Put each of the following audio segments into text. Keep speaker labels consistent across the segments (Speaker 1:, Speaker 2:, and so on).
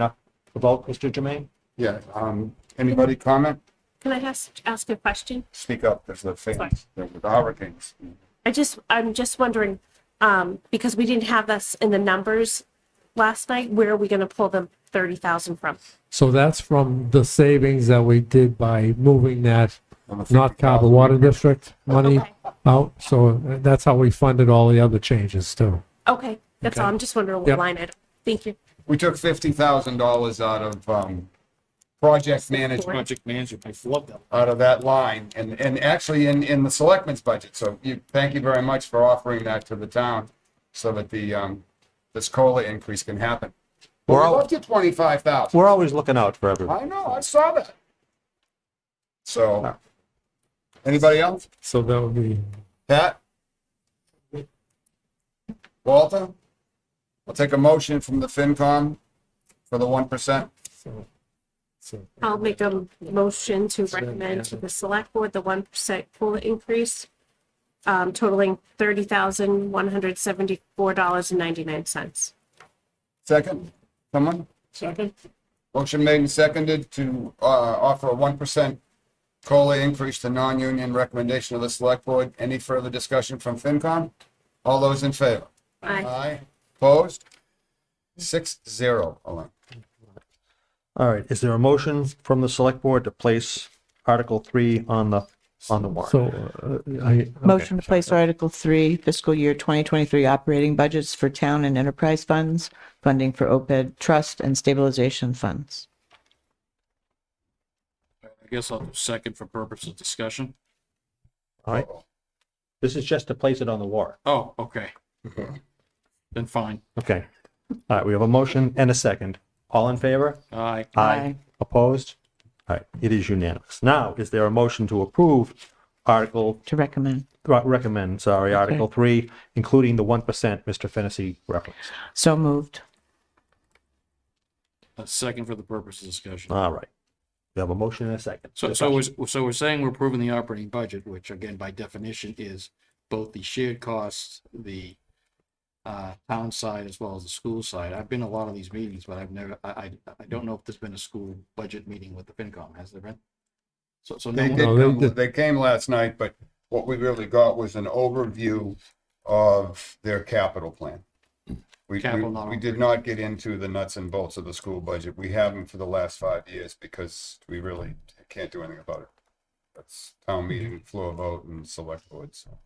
Speaker 1: up the vote, Mr. Jermaine?
Speaker 2: Yeah, um, anybody comment?
Speaker 3: Can I ask, ask a question?
Speaker 2: Speak up, there's a thing,
Speaker 3: Sorry.
Speaker 2: there were hurricanes.
Speaker 3: I just, I'm just wondering, um, because we didn't have this in the numbers last night, where are we gonna pull the thirty thousand from?
Speaker 4: So that's from the savings that we did by moving that
Speaker 2: On the
Speaker 4: North Carver
Speaker 2: 50,000.
Speaker 4: Water District money
Speaker 3: Okay.
Speaker 4: out. So uh, that's how we funded all the other changes too.
Speaker 3: Okay, that's all, I'm just wondering what
Speaker 4: Yep.
Speaker 3: line item. Thank you.
Speaker 2: We took fifty thousand dollars out of, um, project management,
Speaker 1: Project management, I love that.
Speaker 2: out of that line, and, and actually in, in the selectmen's budget, so you, thank you very much for offering that to the town, so that the, um, this COLA increase can happen. We're
Speaker 1: all-
Speaker 2: up to twenty-five thousand,
Speaker 1: We're always looking out for everyone.
Speaker 2: I know, I saw that. So, anybody else?
Speaker 4: So that would be,
Speaker 2: Pat? Walter? We'll take a motion from the FinCom for the one percent.
Speaker 4: so. so-
Speaker 3: I'll make a motion to recommend to the select board the one percent COLA increase um, totaling thirty thousand, one hundred seventy-four dollars and ninety-nine cents.
Speaker 2: Second, someone?
Speaker 1: Second?
Speaker 2: Motion made and seconded to, uh, offer a one percent COLA increase to non-union recommendation of the select board. Any further discussion from FinCom? All those in favor?
Speaker 3: Aye.
Speaker 2: Aye. Opposed? Six zero, Elaine.
Speaker 1: All right, is there a motion from the select board to place Article three on the, on the warrant?
Speaker 4: So uh, I,
Speaker 5: Motion to place Article 3, fiscal year 2023 operating budgets for town and enterprise funds, funding for OPED trust and stabilization funds.
Speaker 6: I guess I'll do second for purpose of discussion.
Speaker 1: All right, this is just to place it on the warrant.
Speaker 6: Oh, okay. Then fine.
Speaker 1: Okay. All right, we have a motion and a second. All in favor?
Speaker 6: Aye.
Speaker 5: Aye.
Speaker 1: Opposed? All right, it is unanimous. Now, is there a motion to approve Article, uh,
Speaker 5: To recommend.
Speaker 1: recommend, sorry, Article three, including the one percent Mr. Fennessy referenced?
Speaker 5: So moved.
Speaker 6: A second for the purpose of discussion.
Speaker 1: All right. We have a motion and a second.
Speaker 6: So, so was, so we're saying we're approving the operating budget, which again, by definition, is both the shared costs, the uh, town side as well as the school side. I've been to a lot of these meetings, but I've never, I, I, I don't know if there's been a school budget meeting with the FinCom, has there been? So, so no
Speaker 2: They
Speaker 6: one-
Speaker 2: did
Speaker 4: No, they
Speaker 2: come,
Speaker 4: did-
Speaker 2: they came last night, but what we really got was an overview of their capital plan. We, we,
Speaker 6: Capital model.
Speaker 2: we did not get into the nuts and bolts of the school budget. We haven't for the last five years because we really can't do anything about it. That's town meeting, floor vote and select board, so.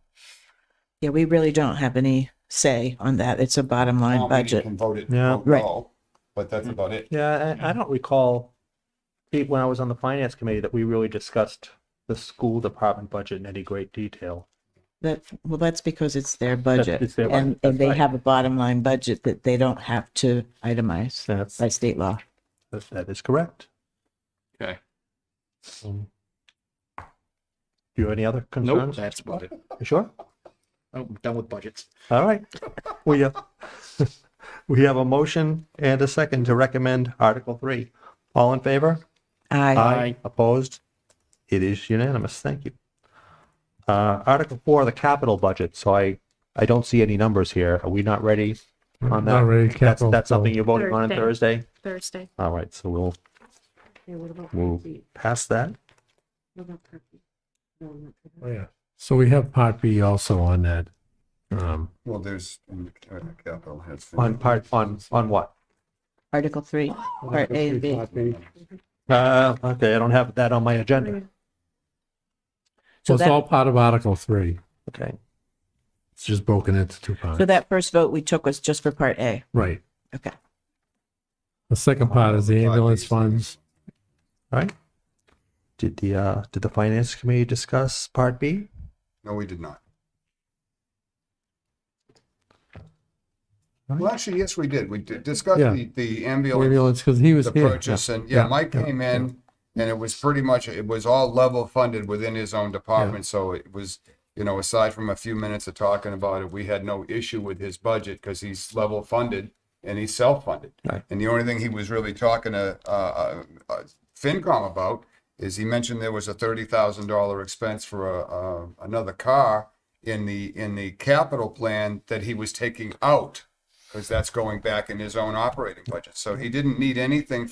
Speaker 5: Yeah, we really don't have any say on that. It's a bottom
Speaker 2: Town
Speaker 5: line
Speaker 2: meeting
Speaker 5: budget.
Speaker 2: Can vote it,
Speaker 1: Yeah.
Speaker 2: vote
Speaker 5: Right.
Speaker 2: no, but that's about it.
Speaker 1: Yeah, I, I don't recall, Pete, when I was on the finance committee, that we really discussed the school department budget in any great detail.
Speaker 5: That, well, that's because it's their budget.
Speaker 1: it's their
Speaker 5: And,
Speaker 1: budget,
Speaker 5: and they
Speaker 1: right.
Speaker 5: have a bottom line budget that they don't have to itemize
Speaker 1: That's,
Speaker 5: by state law.
Speaker 1: that- that is correct.
Speaker 6: Okay.
Speaker 1: Um, Do you have any other
Speaker 6: Nope,
Speaker 1: concerns?
Speaker 6: that's about it.
Speaker 1: You Sure?
Speaker 6: Oh, I'm done with budgets.
Speaker 1: All right. We have, we have a motion and a second to recommend Article Three. All in favor?
Speaker 5: Aye.
Speaker 6: Aye.
Speaker 1: Opposed? It is unanimous. Thank you. Uh, Article Four, the capital budget. So I, I don't see any numbers here. Are we not ready on that?
Speaker 4: Not ready,
Speaker 1: That's-
Speaker 4: capital,
Speaker 1: That's
Speaker 4: so-
Speaker 1: something you're voting on on Thursday?
Speaker 3: Thursday.
Speaker 1: All right, so we'll,
Speaker 3: Okay, what about
Speaker 1: we'll
Speaker 3: Pete?
Speaker 1: pass that.
Speaker 3: What about Pete? No, not Pete.
Speaker 4: oh, yeah. So we have Part B also on that. Um,
Speaker 2: Well, there's, and, uh, capital has.
Speaker 1: On part, on, on what?
Speaker 5: Article 3, Part A and B.
Speaker 1: Uh, okay, I don't have that on my agenda.
Speaker 5: So
Speaker 4: So it's
Speaker 5: that-
Speaker 4: all part of Article Three.
Speaker 1: Okay.
Speaker 4: It's just broken into two parts.
Speaker 5: So that first vote we took was just for Part A.
Speaker 4: Right.
Speaker 5: Okay.
Speaker 4: The second part is the ambulance funds.
Speaker 1: All right. Did the, uh, did the finance committee discuss part B?
Speaker 2: No, we did not. Well, actually, yes, we did. We did discuss
Speaker 4: Yeah.
Speaker 2: the, the ambulance
Speaker 4: Ambulance, because he was
Speaker 2: the
Speaker 4: here. yeah.
Speaker 2: purchase and, yeah, Mike
Speaker 4: yeah,
Speaker 2: came in and it was pretty much, it was all level funded within his own department, so it was, you know, aside from a few minutes of talking about it, we had no issue with his budget because he's level funded and he's self-funded.
Speaker 1: Right.
Speaker 2: And the only thing he was really talking to, uh, uh, uh, FinCom about is he mentioned there was a thirty thousand dollar expense for a, uh, another car in the, in the capital plan that he was taking out because that's going back in his own operating budget. So he didn't need anything